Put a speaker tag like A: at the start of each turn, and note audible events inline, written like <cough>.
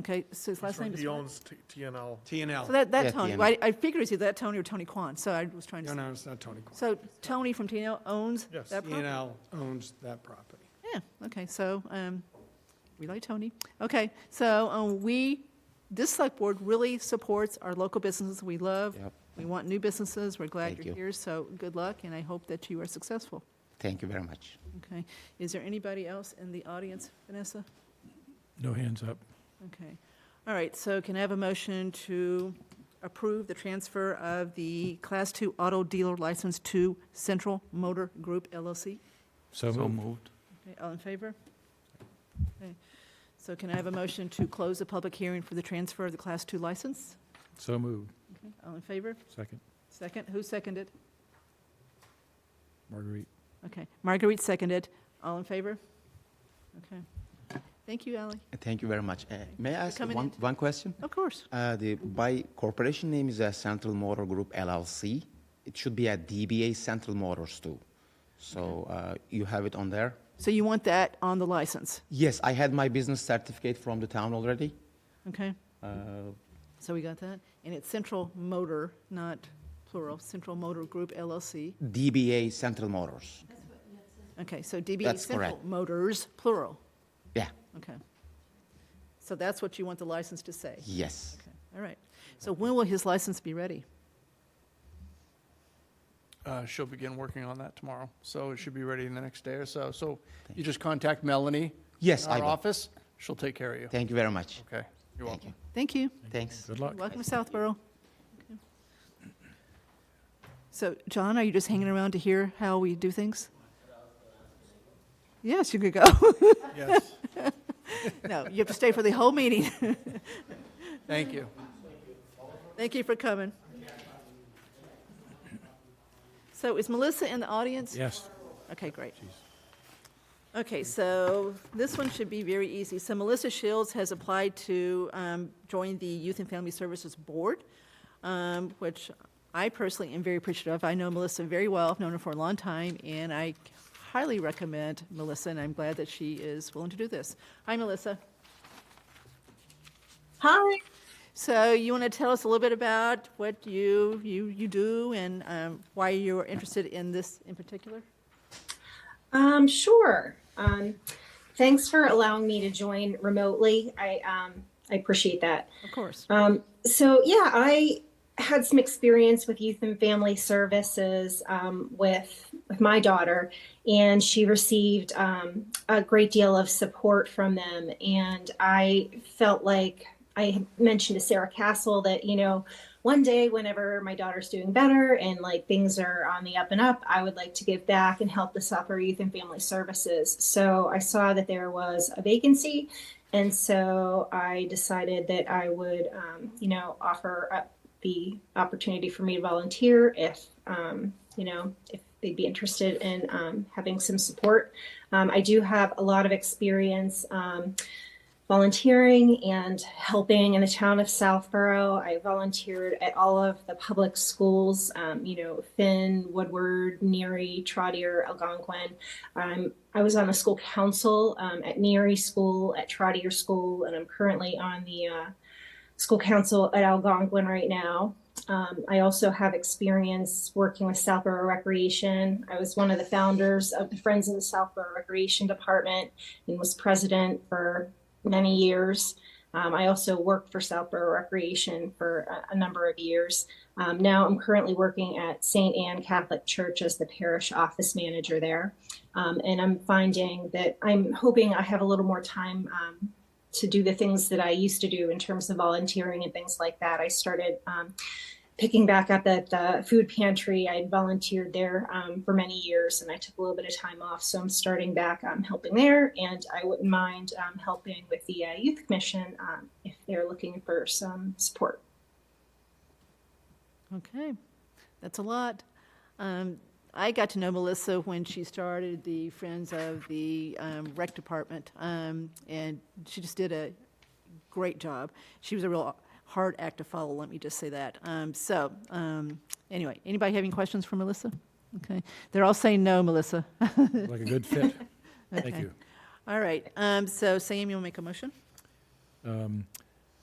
A: Okay, so his last name is
B: He
A: what?
B: owns T- TNL.
A: So
C: TNL.
A: that, that
D: Yeah,
A: Tony,
D: TNL.
A: Well, I I figured it's either that Tony or Tony Kwan, so I was trying
C: No,
A: to,
C: no, it's not Tony Kwan.
A: so Tony from TNL owns
B: Yes.
A: that property?
C: TNL owns that property.
A: Yeah, okay, so, um, we like Tony. Okay, so, um, we, this select board really supports our local businesses we love.
D: Yep.
A: We want new businesses, we're glad
D: Thank
A: you're
D: you.
A: here, so good luck, and I hope that you are successful,
D: Thank you very much.
A: okay? Is there anybody else in the audience, Vanessa?
E: No hands up.
A: Okay, all right, so can I have a motion to approve the transfer of the Class Two Auto Dealer License to Central Motor Group LLC?
E: So moved.
A: Okay, all in favor? Okay. So can I have a motion to close the public hearing for the transfer of the Class 2 license?
E: So moved.
A: Okay, All in favor?
E: Second.
A: Second, who seconded?
E: Marguerite.
A: Okay, Marguerite seconded. All in favor? Okay. Thank you, Ally.
D: Thank you very much. Uh, May I ask
A: coming
D: one,
A: in.
D: one question?
A: Of course.
D: Uh, The, by corporation name is uh, Central Motor Group LLC. It should be a DBA Central Motors too. So uh, you have it on there?
A: So you want that on the license,
D: Yes, I had my business certificate from the town already.
A: okay?
D: Uh,
A: So we got that? And it's Central Motor, not plural, Central Motor Group LLC.
D: DBA Central Motors.
A: Okay, so DBA
D: That's
A: Central
D: correct.
A: Motors, plural,
D: Yeah,
A: okay. So that's what you want the license to say?
D: yes.
A: Okay, all right. So when will his license be ready?
C: Uh, She'll begin working on that tomorrow, so it should be ready in the next day or so. So you just contact Melanie.
D: Yes,
C: in
D: I
C: Our
D: will.
C: office, she'll take care of you.
D: Thank you very much.
C: Okay, you're
D: Thank
C: welcome.
D: you.
A: Thank you.
D: Thanks.
E: Good luck.
A: Welcome to Southborough. Okay. So, John, are you just hanging around to hear how we do things? Yes, you could go. <laughs>
C: Yes,
A: No, you have to stay for the whole meeting.
C: thank you.
A: Thank you for coming. So is Melissa in the audience?
E: Yes.
A: Okay, great. Okay, so this one should be very easy. So Melissa Shields has applied to um, join the Youth and Family Services Board, um, which I personally am very appreciative of. I know Melissa very well, I've known her for a long time, and I highly recommend Melissa, and I'm glad that she is willing to do this. Hi, Melissa. Hi. So you want to tell us a little bit about what you, you, you do and um, why you're interested in this in particular?
F: Um, sure. Um, thanks for allowing me to join remotely. I um, I appreciate that.
A: Of course.
F: Um, so yeah, I had some experience with youth and family services um, with with my daughter, and she received um, a great deal of support from them. And I felt like I had mentioned to Sarah Castle that you know one day whenever my daughter's doing better and like things are on the up and up i would like to give back and help the suffer youth and family services so i saw that there was a vacancy and so i decided that i would um, you know offer up the opportunity for me to volunteer if um, you know if they'd be interested in um, having some support um, i do have a lot of experience um, volunteering and helping in the town of Southborough. I volunteered at all of the public schools, um, you know, Finn, Woodward, Neary, Trotter, Algonquin. Um, I was on the school council um, at Neary School, at Trotter School, and I'm currently on the uh, school council at Algonquin right now. Um, I also have experience working with Southborough Recreation. I was one of the founders of the Friends of the Southborough Recreation Department and was president for many years. Um, I also worked for Southborough Recreation for a, a number of years. Um, now I'm currently working at St. Anne Catholic Church as the parish office manager there. Um, and I'm finding that I'm hoping I have a little more time um, to do the things that I used to do in terms of volunteering and things like that. I started um, picking back up at the food pantry. I had volunteered there um, for many years and I took a little bit of time off. So I'm starting back um, helping there. And I wouldn't mind um, helping with the uh, Youth Commission um, if they're looking for some support.
A: Okay, that's a lot. Um, I got to know Melissa when she started the Friends of the um, Rec Department, um, and she just did a great job. She was a real hard act to follow, let me just say that. Um, so, um, anyway, anybody have any questions for Melissa? Okay, they're all saying no, Melissa.
E: Like a good fit. Thank
A: Okay.
E: you.
A: All right, um, so Sam, you'll make a motion?